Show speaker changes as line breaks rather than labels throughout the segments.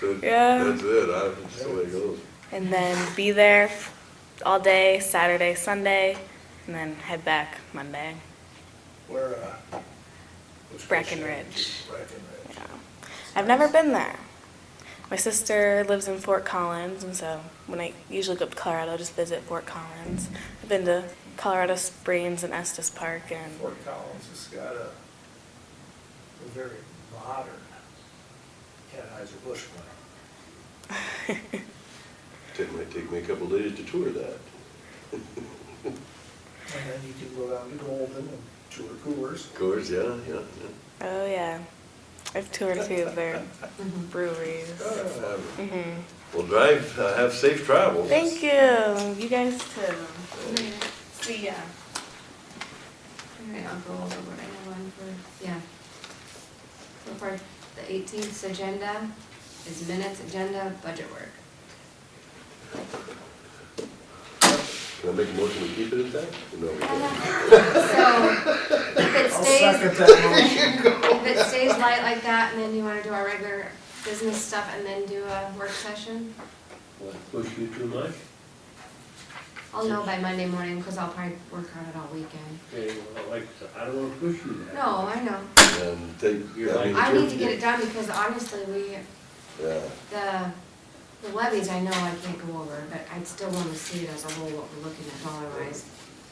That-
Yeah.
That's it, I, that's the way it goes.
and then be there all day Saturday, Sunday, and then head back Monday.
Where, uh? was
Breckenridge.
Breckenridge.
Yeah. I've never been there. My sister lives in Fort Collins, and so when I usually go up to Colorado, I just visit Fort Collins. I've been to Colorado Springs and Estes Park, and
Fort Collins has got a, a very modern Anheuser-Busch one.
It might take me a couple days to tour that.
And then you can go down to Golden and tour Coors.
Of course, yeah, yeah,
oh yeah, I've toured a few of their breweries.
yeah. Uh,
hmm
Well, drive, uh, have safe travels.
Thank you, you guys too. See ya.
Alright, I'll go over what I have on for, yeah. So for the eighteenth agenda is minutes, agenda, budget work.
Can I make a motion to keep it at that? No, we
Uh-huh.
can't.
So, if it
I'll
stays,
second that motion.
if it stays light like that, and then you wanna do our regular business stuff and then do a work session,
Push you too much?
I'll know by Monday morning, cause I'll probably work on it all weekend.
Okay, well, like, I said, I don't wanna push you that.
No, I know,
And take, I mean.
I need to get it done, because honestly, we,
Yeah,
the, the levies, I know I can't go over, but I'd still wanna see it as a whole, what we're looking at dollar wise.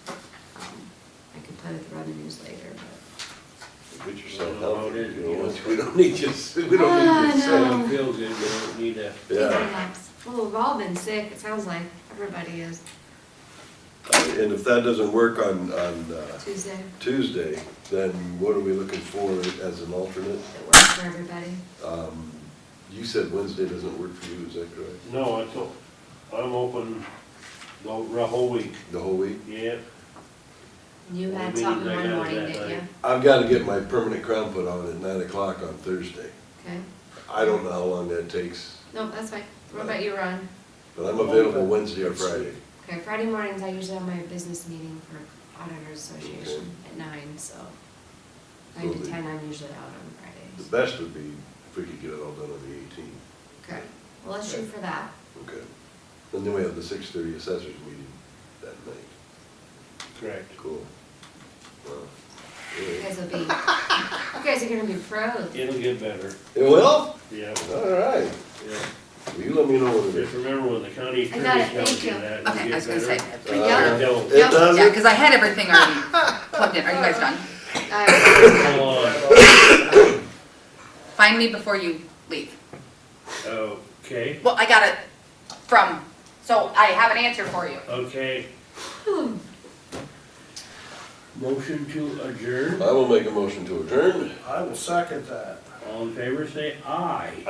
I could play with the revenues later, but.
get yourself
Well,
healthy,
it is,
you know,
yeah.
we don't need you, s- we
Ah,
don't need you
no.
sick.
Someone feels good, you don't need to.
Yeah,
Well, we've all been sick, it sounds like, everybody is,
and if that doesn't work on, on uh,
Tuesday,
Tuesday, then what are we looking for as an alternate?
it works for everybody.
Um, You said Wednesday doesn't work for you, is that correct?
No, it's, o- I'm open the the whole week,
The whole week?
yeah.
You
Well,
had
we
something
need to
one
go
morning,
that
didn't you?
night.
I've got to get my permanent crown put on at nine o'clock on Thursday.
Okay,
I don't know how long that takes,
no, that's fine, what about you, Ron?
but I'm available Wednesday or Friday.
Okay, Friday mornings, I usually have my business meeting for Auditors Association at nine, so. Nine to
Lovely.
ten, I'm usually out on
The
Fridays.
best would be if we could get it all done on the eighteenth,
Okay, well, let's shoot for that.
okay? And then we have the six thirty assessors meeting that night,
Correct.
cool. Wow.
You
Yeah.
guys will be, you guys are gonna be pros.
It'll get better,
It will?
yeah,
All right,
yeah.
Will you let me know when it
Just
is.
remember when the county
I got
attorney
it,
tells
thank
you
you.
that, it'll
Okay, I was
get
gonna say,
better.
for
Uh,
I
y'all,
don't.
It
yeah,
doesn't?
because I had everything already plugged in. Are you guys done?
Uh,
Come on.
Find me before you leave.
Okay,
Well, I got it from, so I have an answer for you.
okay. Motion to adjourn,
I will make a motion to adjourn.
I will second that.
all in favor, say aye.